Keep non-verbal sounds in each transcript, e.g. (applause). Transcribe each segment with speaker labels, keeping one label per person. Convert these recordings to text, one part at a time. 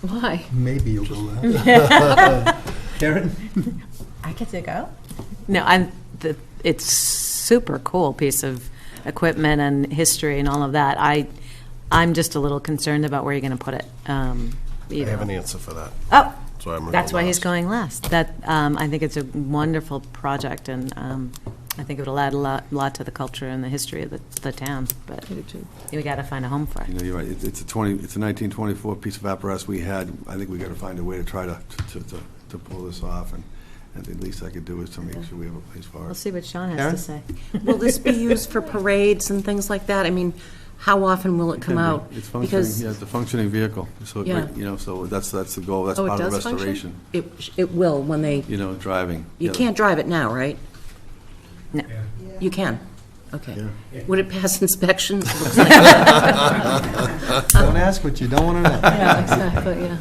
Speaker 1: Why?
Speaker 2: Maybe you'll
Speaker 3: (laughs)
Speaker 2: go last. Karen?
Speaker 4: I get to go?
Speaker 5: No, I'm, the, it's super cool piece of equipment and history and all of that. I, I'm just a little concerned about where you're going to put it. Um, you
Speaker 6: I
Speaker 5: know.
Speaker 6: have an answer for that.
Speaker 5: Oh,
Speaker 6: That's why I'm gonna
Speaker 5: that's
Speaker 6: go
Speaker 5: why he's
Speaker 6: last.
Speaker 5: going last. That, um, I think it's a wonderful project and, um, I think it would add a lot, lot to the culture and the history of the, the town, but we got to find a home for
Speaker 7: You
Speaker 5: it.
Speaker 7: know, you're right, It- it's a 20, it's a 1924 piece of apparatus we had, I think we got to find a way to try to, to, to- to pull this off, and and the least I could do is to make sure we have a place for
Speaker 5: We'll
Speaker 7: it.
Speaker 5: see what Sean has
Speaker 7: Karen?
Speaker 5: to say.
Speaker 1: Will this be used for parades and things like that? I mean, how often will it come out?
Speaker 7: uh, It's functioning,
Speaker 1: Because-
Speaker 7: yeah, it's a functioning vehicle, so, it-
Speaker 1: Yeah.
Speaker 7: you know, so that's, that's the goal, that's
Speaker 1: Oh, it
Speaker 7: part of
Speaker 1: does
Speaker 7: restoration,
Speaker 1: function? It, it will when they,
Speaker 7: you know, driving.
Speaker 1: you
Speaker 7: Yeah.
Speaker 1: can't drive it now, right?
Speaker 5: No.
Speaker 1: You can? Okay.
Speaker 7: Yeah.
Speaker 1: Would it pass (laughs) inspection?
Speaker 7: (laughs)
Speaker 1: Looks like-
Speaker 2: Don't ask what you don't want to know.
Speaker 1: Yeah, exactly, yeah.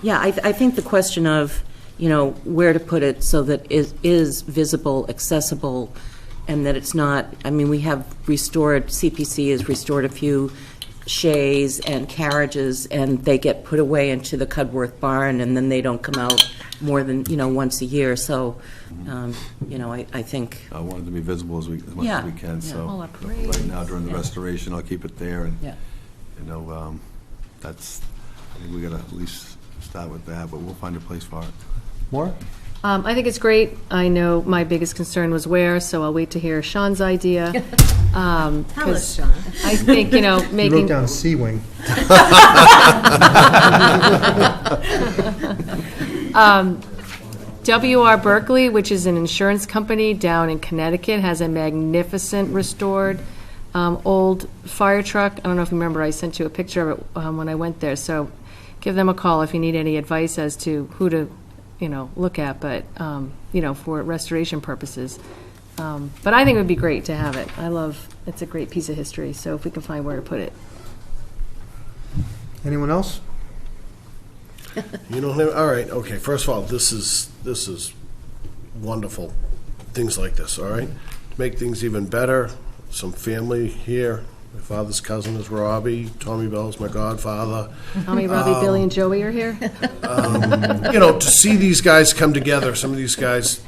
Speaker 1: Yeah, I, I think the question of, you know, where to put it so that it is visible, accessible, and that it's not, I mean, we have restored, CPC has restored a few shays and carriages, and they get put away into the Cudworth barn, and then they don't come out more than, you know, once a year, so, um, you know, I, I think,
Speaker 7: I want it to be visible as we, as much
Speaker 1: Yeah,
Speaker 7: as we can,
Speaker 1: yeah.
Speaker 7: so.
Speaker 1: All
Speaker 7: Right now, during the restoration, I'll keep it there, and,
Speaker 1: Yeah.
Speaker 7: you know, um, that's, I think we got to at least start with that, but we'll find a place for it.
Speaker 2: More?
Speaker 3: Um, I think it's great. I know my biggest concern was where, so I'll wait to hear Sean's idea. Um, 'cause
Speaker 5: Sean.
Speaker 3: I think, you know,
Speaker 2: You wrote
Speaker 3: making,
Speaker 2: down C-wing.
Speaker 3: WR Berkeley, which is an insurance company down in Connecticut, has a magnificent restored um, old fire truck. I don't know if you remember, I sent you a picture of it um, when I went there. So give them a call if you need any advice as to who to, you know, look at, but, um, you know, for restoration purposes. Um, But I think it would be great to have it. I love, it's a great piece of history, so if we can find where to put it.
Speaker 2: Anyone else?
Speaker 6: You don't have, all right, okay, first of all, this is, this is wonderful, things like this, all right? To make things even better, some family here, my father's cousin is Robbie, Tommy Bell's my godfather.
Speaker 3: Tommy, Robbie, Billy, and Joey are here.
Speaker 6: You know, to see these guys come together, some of these guys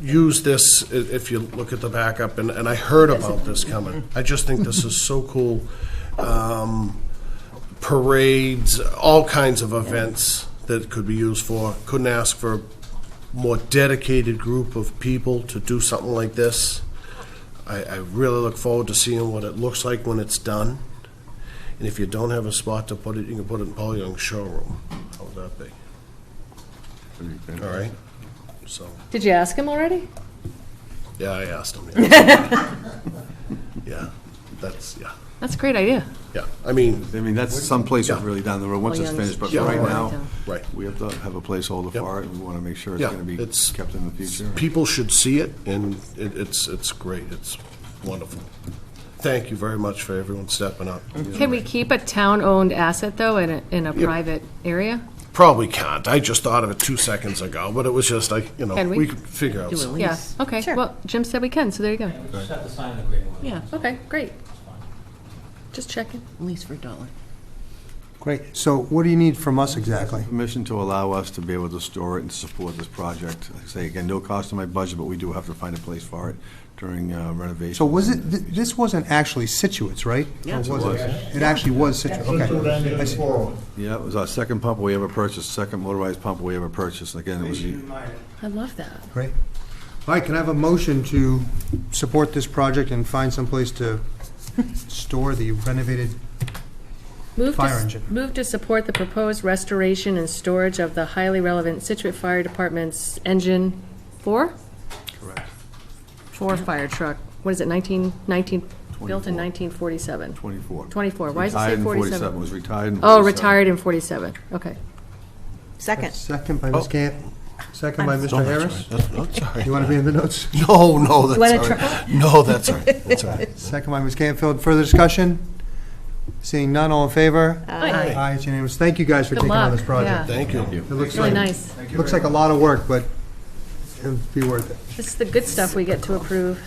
Speaker 6: use this, i- if you look at the backup, and, and I heard about this coming. I just think this is so cool. Um, parades, all kinds of events that it could be used for. Couldn't ask for a more dedicated group of people to do something like this. I, I really look forward to seeing what it looks like when it's done. And if you don't have a spot to put it, you can put it in Paul Young's showroom. How would that be? All right? So,
Speaker 3: (laughs) Did you ask him already?
Speaker 6: yeah, I asked him. Yeah, Yeah, that's, yeah,
Speaker 3: That's a great idea.
Speaker 6: yeah. I mean,
Speaker 7: I mean, that's some place
Speaker 6: Yeah.
Speaker 7: really down the road, once it's
Speaker 1: Young's-
Speaker 7: finished, but
Speaker 6: Yeah.
Speaker 7: for right
Speaker 6: Right.
Speaker 7: now,
Speaker 6: Right.
Speaker 7: we have to have a placeholder
Speaker 6: Yep.
Speaker 7: for it, and we want to make sure it's
Speaker 6: Yeah,
Speaker 7: going to be
Speaker 6: it's-
Speaker 7: kept in the future.
Speaker 6: people should see it, and it- it's, it's great. It's wonderful. Thank you very much for everyone stepping up.
Speaker 3: Can we keep a town-owned asset, though, in a, in a
Speaker 6: Yeah.
Speaker 3: private area?
Speaker 6: Probably can't. I just thought of it two seconds ago, but it was just like, you know,
Speaker 3: Can we?
Speaker 6: we could figure out. something.
Speaker 3: Yeah, okay. Well, Jim said we can, so there you go.
Speaker 8: Just have to sign an agreement with
Speaker 1: yeah,
Speaker 3: Okay, great. Just checking.
Speaker 1: at least for a dollar.
Speaker 2: Great. So what do you need from us exactly?
Speaker 7: Permission to allow us to be able to store it and support this project. Like I say, again, no cost to my budget, but we do have to find a place for it during uh, renovation.
Speaker 2: So was it, th- this wasn't actually Situate's, right? Yeah. It was. It actually was Situate, okay. I see.
Speaker 7: Yeah, it was our second pump we ever purchased, second motorized pump we ever purchased, and again, it was, the-
Speaker 3: I love that.
Speaker 2: Great. All right, can I have a motion to support this project and find someplace to store the renovated
Speaker 3: Move to
Speaker 2: Fire
Speaker 3: s-
Speaker 2: engine.
Speaker 3: Move to support the proposed restoration and storage of the highly relevant Situate Fire Department's engine four?
Speaker 7: Correct.
Speaker 3: Four fire truck. What is it, 19, 19, built in
Speaker 7: 24.
Speaker 3: 1947?
Speaker 7: 24.
Speaker 3: 24. Why does it say
Speaker 7: Retired in
Speaker 3: 47?
Speaker 7: It was retired in 47.
Speaker 3: Oh, retired in 47. Okay.
Speaker 5: Second.
Speaker 2: Second by Ms. Camp, second by Mr.
Speaker 6: That's
Speaker 2: Harris.
Speaker 6: right. That's- that's all right.
Speaker 2: You want to be in the notes?
Speaker 6: No, no, that's
Speaker 5: want a
Speaker 6: all right. No, that's all right. That's all
Speaker 3: (laughs)
Speaker 6: right.
Speaker 2: Second by Ms. Campfield. Further discussion? Seeing none, all in favor? Aye. Aye, it's unanimous. Thank you guys for
Speaker 3: Good
Speaker 2: taking on
Speaker 3: luck,
Speaker 2: this project.
Speaker 3: yeah.
Speaker 6: Thank you.
Speaker 2: It looks
Speaker 3: Really
Speaker 2: like,
Speaker 3: nice.
Speaker 2: looks like a lot of work, but it'll be worth it.
Speaker 3: This is the good stuff we get to approve.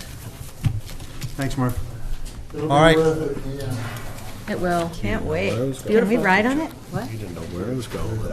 Speaker 2: Thanks, Murph. All right,
Speaker 3: It will.
Speaker 5: Can't wait. Can we ride on it?
Speaker 6: You didn't know where I was going.